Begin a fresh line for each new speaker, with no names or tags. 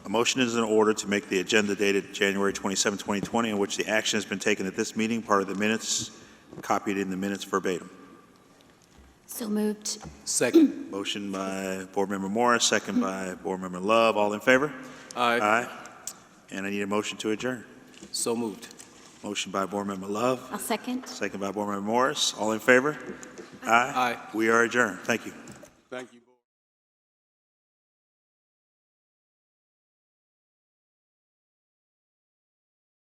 motion is in order to make the agenda dated January 27, 2020, in which the action has been taken at this meeting, part of the minutes, copied in the minutes verbatim.
So moved.
Second.
Motion by Board Member Morris, second by Board Member Love. All in favor?
Aye.
Aye. And I need a motion to adjourn.
So moved.
Motion by Board Member Love,
I'll second.
second by Board Member Morris. All in favor?
Aye.
We are adjourned. Thank you.
Thank you.